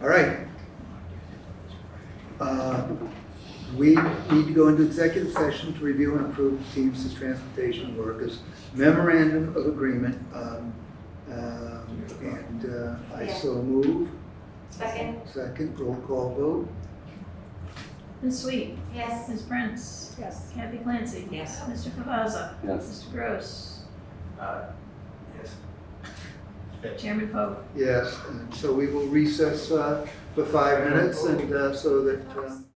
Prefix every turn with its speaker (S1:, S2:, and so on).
S1: All right. Uh, We need to go into executive session to review and approve Teamsters Transportation Workers memorandum of agreement. um, um, And uh, I so move.
S2: Second,
S1: Second, roll call vote.
S3: Ms. Sweet,
S2: yes.
S3: Ms. Prince,
S4: Yes.
S3: Kathy Clancy.
S4: Yes.
S3: Mr. Cavazza.
S5: Yes.
S3: Mr. Gross.
S6: Yes.
S3: Chairman Fogle.
S1: Yes, and so we will recess uh, for five minutes and uh, so that. um,